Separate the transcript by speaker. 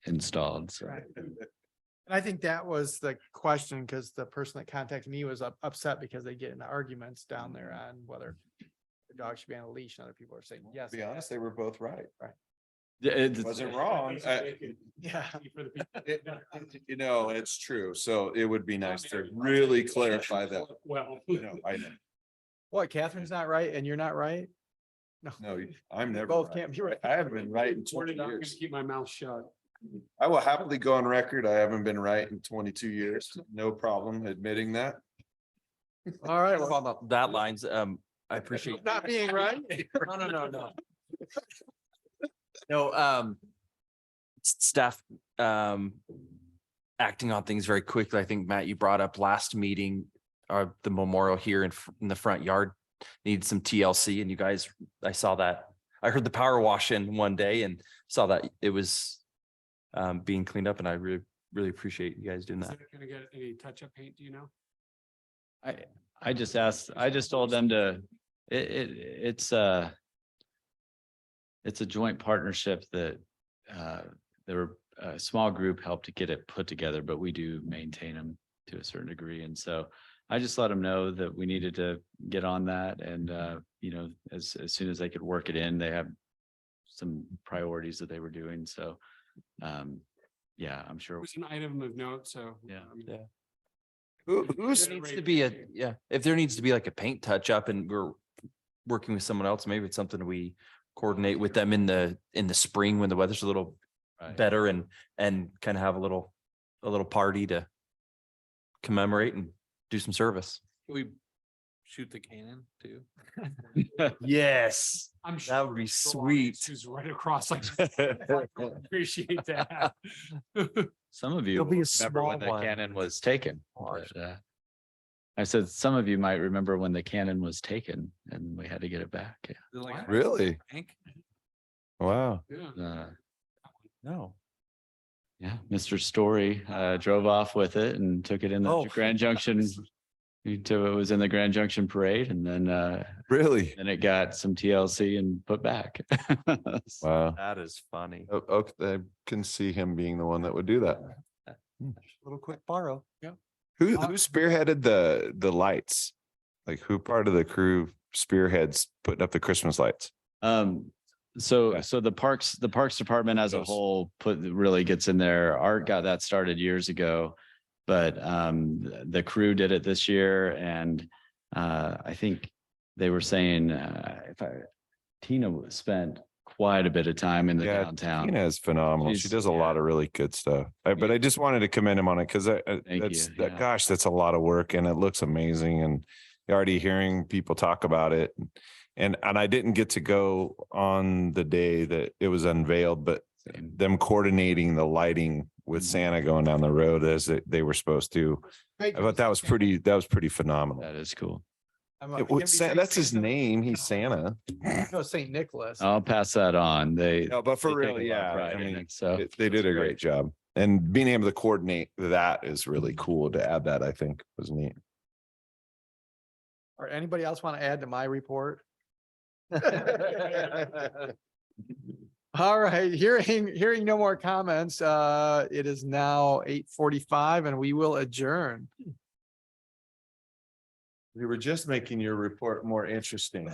Speaker 1: installed, so.
Speaker 2: And I think that was the question, because the person that contacted me was up- upset because they get into arguments down there on whether the dog should be on a leash, and other people are saying, yes.
Speaker 3: To be
Speaker 2: it
Speaker 3: honest,
Speaker 2: has-
Speaker 3: they were both right.
Speaker 1: Yeah, it's-
Speaker 3: Wasn't wrong. uh,
Speaker 2: Yeah.
Speaker 3: it- You know, it's true. So it would be nice to really clarify that.
Speaker 4: Well.
Speaker 3: You know, I know.
Speaker 2: What, Catherine's not right and you're not right?
Speaker 3: No, you- I'm
Speaker 2: You
Speaker 3: never
Speaker 2: Both
Speaker 3: right.
Speaker 2: can't be right.
Speaker 3: I haven't been right in
Speaker 4: We're
Speaker 3: twenty
Speaker 4: not gonna
Speaker 3: years.
Speaker 4: keep my mouth shut.
Speaker 3: I will happily go on record. I haven't been right in twenty-two years. No problem admitting that.
Speaker 2: All right, well,
Speaker 5: On the- That lines, um, I appreciate,
Speaker 2: not being right.
Speaker 5: no, no, no, no. No, um, s- staff, um, acting on things very quickly. I think, Matt, you brought up last meeting, uh, the memorial here in, fr- in the front yard needs some TLC and you guys, I saw that. I heard the power wash in one day and saw that it was um, being cleaned up and I really, really appreciate you guys doing
Speaker 4: Is
Speaker 5: that.
Speaker 4: it gonna get any touch-up paint, do you know?
Speaker 1: I, I just asked, I just told them to, it, it, it's a. It's a joint partnership that, uh, there were, a small group helped to get it put together, but we do maintain them to a certain degree. And so I just let them know that we needed to get on that and, uh, you know, as, as soon as they could work it in, they have some priorities that they were doing. So, um, yeah, I'm
Speaker 4: It
Speaker 1: sure.
Speaker 4: was an item of note, so.
Speaker 1: Yeah.
Speaker 4: I mean,
Speaker 5: Yeah.
Speaker 3: Who,
Speaker 4: who's-
Speaker 3: who's,
Speaker 5: There needs
Speaker 4: Great
Speaker 5: to be a,
Speaker 4: picture.
Speaker 5: yeah, if there needs to be like a paint touch up and we're working with someone else, maybe it's something we coordinate with them in the, in the spring when the weather's a little
Speaker 1: Right.
Speaker 5: better and, and kind of have a little, a little party to commemorate and do some service.
Speaker 6: We shoot the cannon too.
Speaker 5: Yes.
Speaker 4: I'm
Speaker 5: That
Speaker 4: sure
Speaker 5: would
Speaker 4: the
Speaker 5: be
Speaker 4: longest
Speaker 5: sweet.
Speaker 4: Who's right across like. Appreciate that.
Speaker 1: Some of you
Speaker 5: There'll
Speaker 1: will
Speaker 5: be a
Speaker 1: remember when
Speaker 5: small
Speaker 1: the
Speaker 5: one.
Speaker 1: cannon was taken.
Speaker 5: Large.
Speaker 1: but, uh, I said, some of you might remember when the cannon was taken and we had to get it back. yeah.
Speaker 6: They're like,
Speaker 3: really?
Speaker 6: "Hank,
Speaker 3: Wow.
Speaker 4: Yeah.
Speaker 1: Uh,
Speaker 5: No.
Speaker 1: Yeah, Mr. Story uh, drove off with it and took it in the
Speaker 5: Oh.
Speaker 1: Grand Junction. Until it was in the Grand Junction Parade and then, uh,
Speaker 3: Really?
Speaker 1: then it got some TLC and put back. So-
Speaker 3: Wow.
Speaker 5: That is funny.
Speaker 3: Okay, Oh, I can see him being the one that would do that.
Speaker 5: Little quick borrow.
Speaker 3: Who,
Speaker 4: Uh,
Speaker 3: who spearheaded the, the lights? Like who part of the crew spearheads putting up the Christmas lights?
Speaker 1: Um, so,
Speaker 3: Yeah.
Speaker 1: so the parks, the parks department as a
Speaker 3: Those.
Speaker 1: whole put, really gets in there. Art got that started years ago. But, um, th- the crew did it this year and, uh, I think they were saying, uh, if I, Tina w- spent quite a bit of time in the
Speaker 3: Yeah,
Speaker 1: downtown.
Speaker 3: Tina is phenomenal. She
Speaker 1: She's-
Speaker 3: does a
Speaker 1: yeah.
Speaker 3: lot of really good stuff. I- But I just wanted to commend him on it because
Speaker 1: Thank
Speaker 3: that's,
Speaker 1: you,
Speaker 3: that-
Speaker 1: yeah.
Speaker 3: gosh, that's a lot of work and it looks amazing and you're already hearing people talk about it. And, and I didn't get to go on the day that it was unveiled, but
Speaker 1: Same.
Speaker 3: them coordinating the lighting with
Speaker 1: Mhm.
Speaker 3: Santa going down the road as they, they were supposed to. I thought that was pretty, that was pretty phenomenal.
Speaker 1: That is cool.
Speaker 2: I'm a-
Speaker 3: It was
Speaker 2: can we
Speaker 3: Sa-
Speaker 2: say
Speaker 3: That's his
Speaker 2: Santa?
Speaker 3: name. He's Santa.
Speaker 2: No, Saint Nicholas.
Speaker 3: Oh.
Speaker 1: I'll pass that on. They.
Speaker 3: No, but
Speaker 1: they
Speaker 3: for
Speaker 1: take a
Speaker 3: real,
Speaker 1: lot of
Speaker 3: yeah.
Speaker 1: pride
Speaker 3: I
Speaker 1: in
Speaker 3: mean,
Speaker 1: it, So.
Speaker 3: it- they did a great job. And being able to coordinate that is really cool to add that, I think was neat.
Speaker 2: Or anybody else want to add to my report? All right, hearing, hearing no more comments, uh, it is now eight forty-five and we will adjourn.
Speaker 3: We were just making your report more interesting.